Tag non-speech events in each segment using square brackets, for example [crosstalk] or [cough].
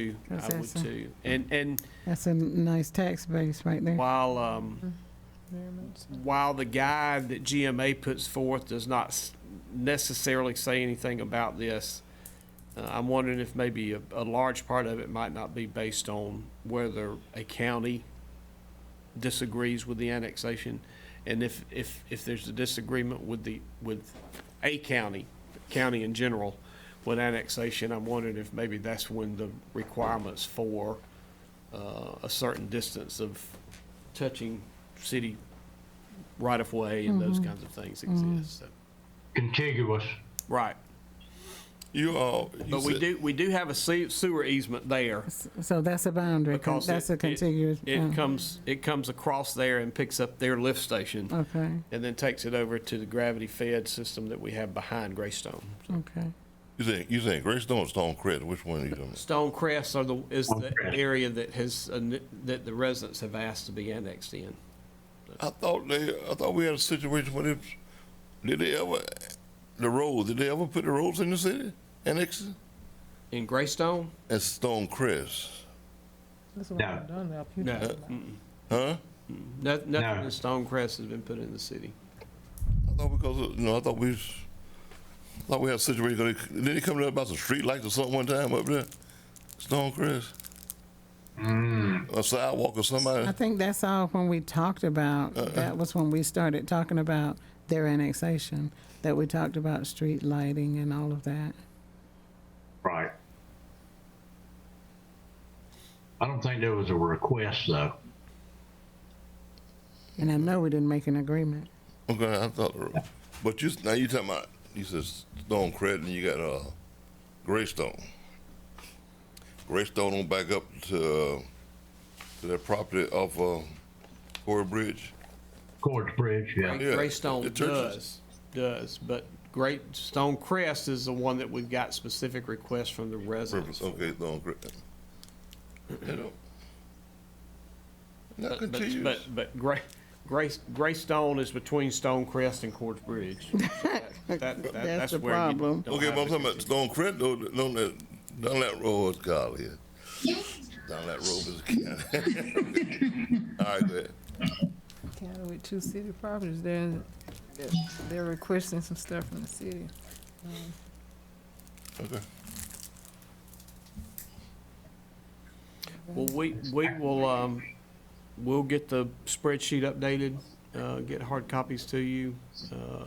too. That's I would awesome. too. And, and That's a nice tax base right there. while, um, while the guide that GMA puts forth does not s- necessarily say anything about this, uh, I'm wondering if maybe a, a large part of it might not be based on whether a county disagrees with the annexation. And if, if, if there's a disagreement with the, with a county, county in general, with annexation, I'm wondering if maybe that's when the requirements for uh, a certain distance of touching city right-of-way and those Mm-hmm. kinds of things exist, so, contiguous. right. You uh, you But we said- do, we do have a se- sewer easement there. S- So that's a boundary, con- because that's a it- it- contiguous. It uh, comes, it comes across there and picks up their lift station Okay, and then takes it over to the gravity-fed system that we have behind Greystone. okay. You think you think Greystone or Stone Crest? Which one are you talking? about? Stone Crest are the, is the Stonecrest. area that has, uh, that the residents have asked to be annexed in. I thought they. I thought we had a situation where they did they ever the roads? Did they ever put the roads in the city? Annex In Greystone? and Stone Crest, That's what No. I've done up here. No. huh? No- Nothing No. in Stone Crest has been put in the city. I thought because of, you know I thought we. was- I thought we had a situation. 'cause they- Didn't it come up about some street lights or something one time up there? Stone Crest, Mm. a sidewalk or somebody. I think that's all when we talked about, Uh-uh. that was when we started talking about their annexation, that we talked about street lighting and all of that. Right. I don't think there was a request though. And I know we didn't make an agreement. Okay, I thought. But you now you talking about you said Stone Credit and you got uh Greystone. Greystone on back up to uh, to that property off uh, Corey Bridge. Court Bridge, yeah. Gray- Yeah, Greystone the churches. does, does, but Great Stone Crest is the one that we've got specific requests from the residents. Purpose. Okay, Stone Credit. You know. Not But, continuous. but, but- but Gray, Gray, Greystone is between Stone Crest and Quartz Bridge. [laughs] That- that- that- That's the where you problem. don't okay, have but I'm the talking about Stone Credit though. Down that down that road, what's called here. Down that road is [laughs] All right, go ahead. County with two city properties, they're, in- they're- they're requesting some stuff from the city. Okay. Well, we, we will, um, we'll get the spreadsheet updated, uh, get hard copies to you. Uh,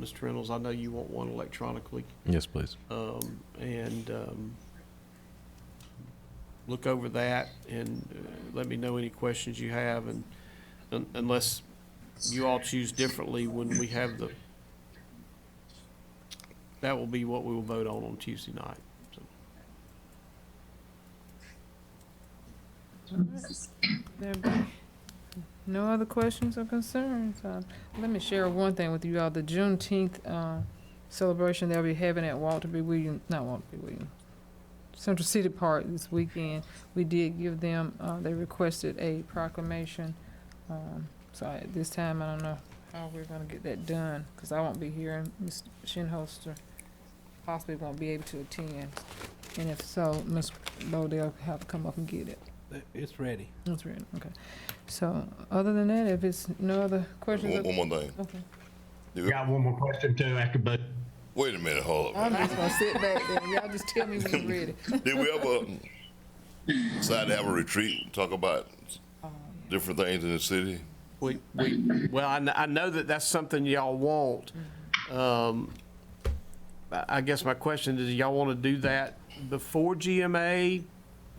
Mr. Reynolds, I know you want one electronically. Yes, please. um, and um, look over that and uh, let me know any questions you have and un- unless you all choose differently when we have the, that will be what we will vote on on Tuesday night. So, There be No other questions or concerns? Uh, Let me share one thing with you all, the Juneteenth uh, celebration they'll be having at Walter B. Williams, not Walter B. Williams, Central City Park this weekend. We did give them, uh, they requested a proclamation. Um, So at this time, I don't know how we're gonna get that done, because I won't be here, and Ms. Shinholster possibly won't be able to attend. And if so, Ms. Lodell have to come up and get it. It's ready. That's right, okay. So, other than that, if it's no other questions, One, okay. one more thing. You- Got one more question too after both. Wait a minute, hold up. I'm just gonna sit back there, and y'all just tell me when you're ready. Did we [laughs] ever decide to have a retreat and talk about Um, different things in the city? We, we, well, I, kn- I know that that's something y'all want. Um, I I guess my question is, y'all want to do that before GMA?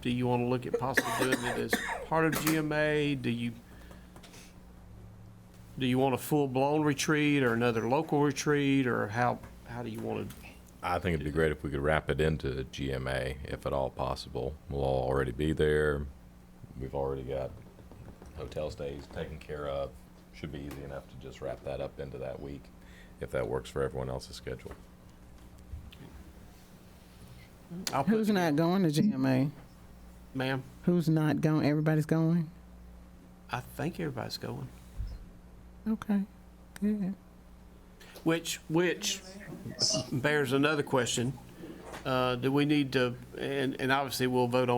Do you want to look at possibly doing it as part of GMA? Do you, do you want a full-blown retreat or another local retreat, or how, how do you want to? I think it'd be great if we could wrap it into GMA, if at all possible. We'll all already be there. We've already got hotel stays taken care of. Should be easy enough to just wrap that up into that week, if that works for everyone else's schedule. I'll put- Who's not going to GMA? Ma'am, Who's not going? Everybody's going? I think everybody's going. Okay, good. Which, which bears another question. Uh, do we need to, and, and obviously we'll vote on